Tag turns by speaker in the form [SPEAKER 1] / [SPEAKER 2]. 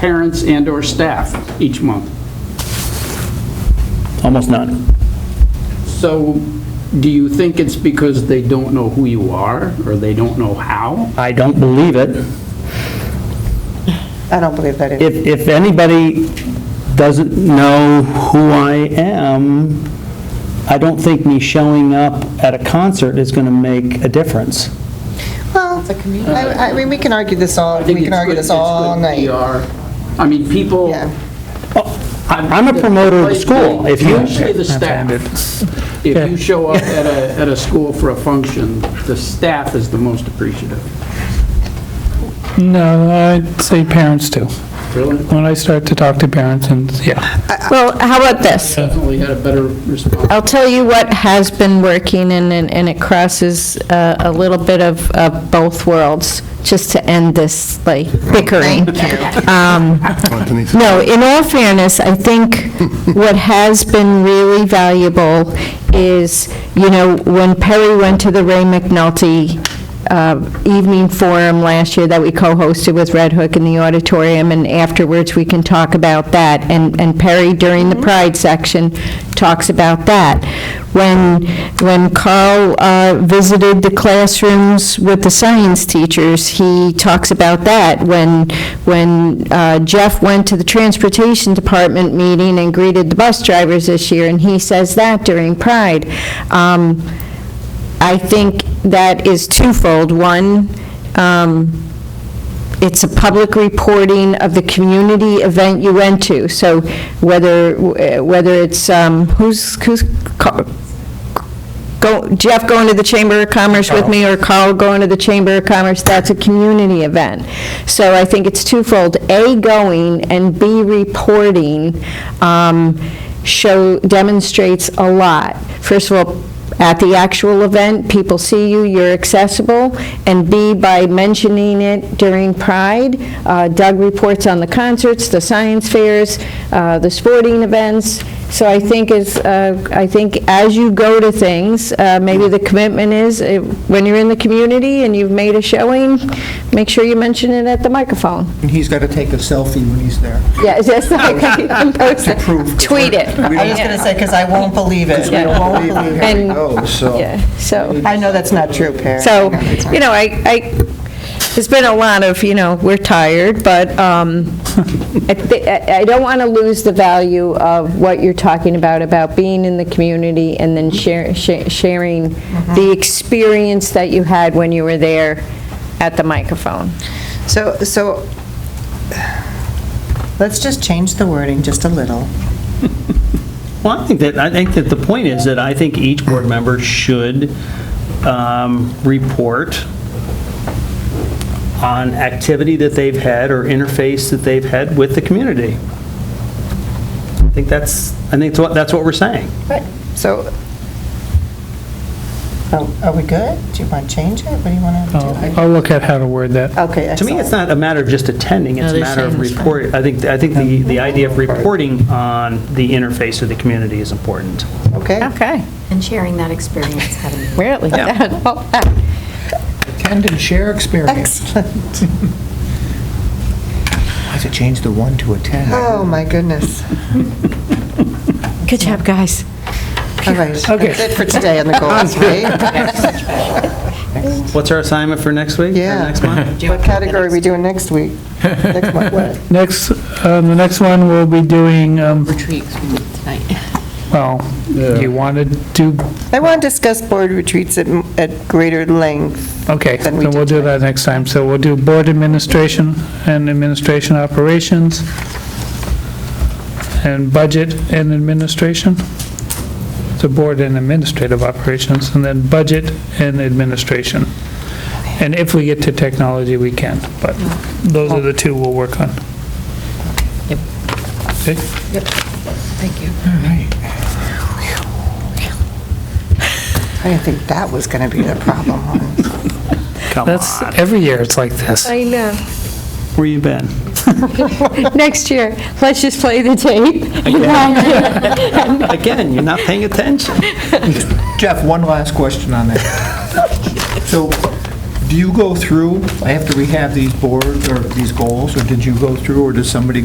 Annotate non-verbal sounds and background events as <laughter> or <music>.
[SPEAKER 1] parents and/or staff each month.
[SPEAKER 2] Almost none.
[SPEAKER 1] So do you think it's because they don't know who you are, or they don't know how?
[SPEAKER 2] I don't believe it.
[SPEAKER 3] I don't believe that either.
[SPEAKER 2] If, if anybody doesn't know who I am, I don't think me showing up at a concert is going to make a difference.
[SPEAKER 3] Well, I I mean, we can argue this all, we can argue this all night.
[SPEAKER 1] I mean, people, Oh,
[SPEAKER 3] Yeah.
[SPEAKER 2] I- I'm a promoter of the school. If you,
[SPEAKER 1] Especially the staff. If you show up at a, at a school for a function, the staff is the most appreciative.
[SPEAKER 4] No, I'd say parents too.
[SPEAKER 1] Really?
[SPEAKER 4] When I start to talk to parents and, yeah,
[SPEAKER 5] Well, how about this?
[SPEAKER 1] Definitely had a better response.
[SPEAKER 5] I'll tell you what has been working, and, and and it crosses uh, a little bit of of both worlds, just to end this, like, bickering. Um, No, in all fairness, I think what has been really valuable is, you know, when Perry went to the Ray McNulty uh, evening forum last year that we co-hosted with Red Hook in the auditorium, and afterwards, we can talk about that. And and Perry, during the Pride section, talks about that. When when Carl uh, visited the classrooms with the science teachers, he talks about that. When when uh, Jeff went to the Transportation Department meeting and greeted the bus drivers this year, and he says that during Pride. Um, I think that is twofold. One, um, it's a public reporting of the community event you went to. So whether, eh, whether it's, um, who's, who's, co- go Jeff going to the Chamber of Commerce with me, or Carl going to the Chamber of Commerce, that's a community event. So I think it's twofold, A, going, and B, reporting, um, show, demonstrates a lot. First of all, at the actual event, people see you, you're accessible, and B, by mentioning it during Pride. Uh, Doug reports on the concerts, the science fairs, uh, the sporting events. So I think is, uh, I think as you go to things, uh, maybe the commitment is, uh, when you're in the community and you've made a showing, make sure you mention it at the microphone.
[SPEAKER 6] And he's got to take a selfie when he's there.
[SPEAKER 5] Yeah, <laughs> is that something? Post it.
[SPEAKER 6] prove-
[SPEAKER 5] Tweet it.
[SPEAKER 3] I was going to say, because I won't believe it.
[SPEAKER 6] We
[SPEAKER 3] I
[SPEAKER 6] don't
[SPEAKER 3] won't
[SPEAKER 6] believe
[SPEAKER 3] believe
[SPEAKER 6] it.
[SPEAKER 3] it.
[SPEAKER 6] Here we
[SPEAKER 5] Oh, And-
[SPEAKER 6] go, so.
[SPEAKER 5] Yeah, so.
[SPEAKER 3] I know that's not true, Perry.
[SPEAKER 5] So,
[SPEAKER 3] I know that's not
[SPEAKER 5] you know, I, I, there's been a lot of, you know, we're tired, but um, I thi- I I don't want to lose the value of what you're talking about, about being in the community and then share- sha- sharing
[SPEAKER 2] Mm-hmm.
[SPEAKER 5] the experience that you had when you were there at the microphone.
[SPEAKER 3] So, so, let's just change the wording just a little.
[SPEAKER 2] Well, I think that, I think that the point is that I think each board member should um, report on activity that they've had or interface that they've had with the community. I think that's, I think that's what, that's what we're saying.
[SPEAKER 3] So, oh, are we good? Do you want to change it? What do you want to
[SPEAKER 4] I'll
[SPEAKER 3] do?
[SPEAKER 4] I'll look at how Oh, to word that.
[SPEAKER 3] Okay,
[SPEAKER 2] To me,
[SPEAKER 3] excellent.
[SPEAKER 2] it's not a matter of just attending, it's a matter of report, I think, I think the, the idea of reporting on the interface of the community is important.
[SPEAKER 3] Okay.
[SPEAKER 5] Okay,
[SPEAKER 7] And sharing that experience, having
[SPEAKER 5] <laughs> we're at like that. Well, uh, that-
[SPEAKER 6] Attend and share experience.
[SPEAKER 3] Excellent.
[SPEAKER 6] I have to change the one to attend.
[SPEAKER 3] Oh, my goodness.
[SPEAKER 5] Good job, guys.
[SPEAKER 3] All right.
[SPEAKER 4] Okay.
[SPEAKER 3] That's it for today on the goals, right?
[SPEAKER 2] What's our assignment for next week? or
[SPEAKER 3] Yeah.
[SPEAKER 2] Next month?
[SPEAKER 3] What category are we doing next week? Next month, what?
[SPEAKER 4] Next, um, the next one we'll be doing, um,
[SPEAKER 8] retreats we did tonight.
[SPEAKER 4] well, you want to do,
[SPEAKER 3] I want to discuss board retreats at, at greater length.
[SPEAKER 4] okay,
[SPEAKER 3] Then
[SPEAKER 4] then
[SPEAKER 3] we
[SPEAKER 4] we'll
[SPEAKER 3] did
[SPEAKER 4] do that next time. So we'll do board administration and administration operations and budget and administration. So board and administrative operations, and then budget and administration. And if we get to technology, we can, but those are the two we'll work on.
[SPEAKER 8] Yep.
[SPEAKER 4] Okay?
[SPEAKER 8] Thank you.
[SPEAKER 3] I didn't think that was going to be the problem.
[SPEAKER 2] Come
[SPEAKER 4] That's,
[SPEAKER 2] on,
[SPEAKER 4] every year it's like this.
[SPEAKER 5] I know.
[SPEAKER 2] where you been?
[SPEAKER 5] <laughs> Next year, let's just play the tape. <laughs>
[SPEAKER 2] Again, you're not paying attention.
[SPEAKER 5] <laughs>
[SPEAKER 6] Jeff, one last question on that. So, do you go through, I have to rehab these boards or these goals, or did you go through, or does somebody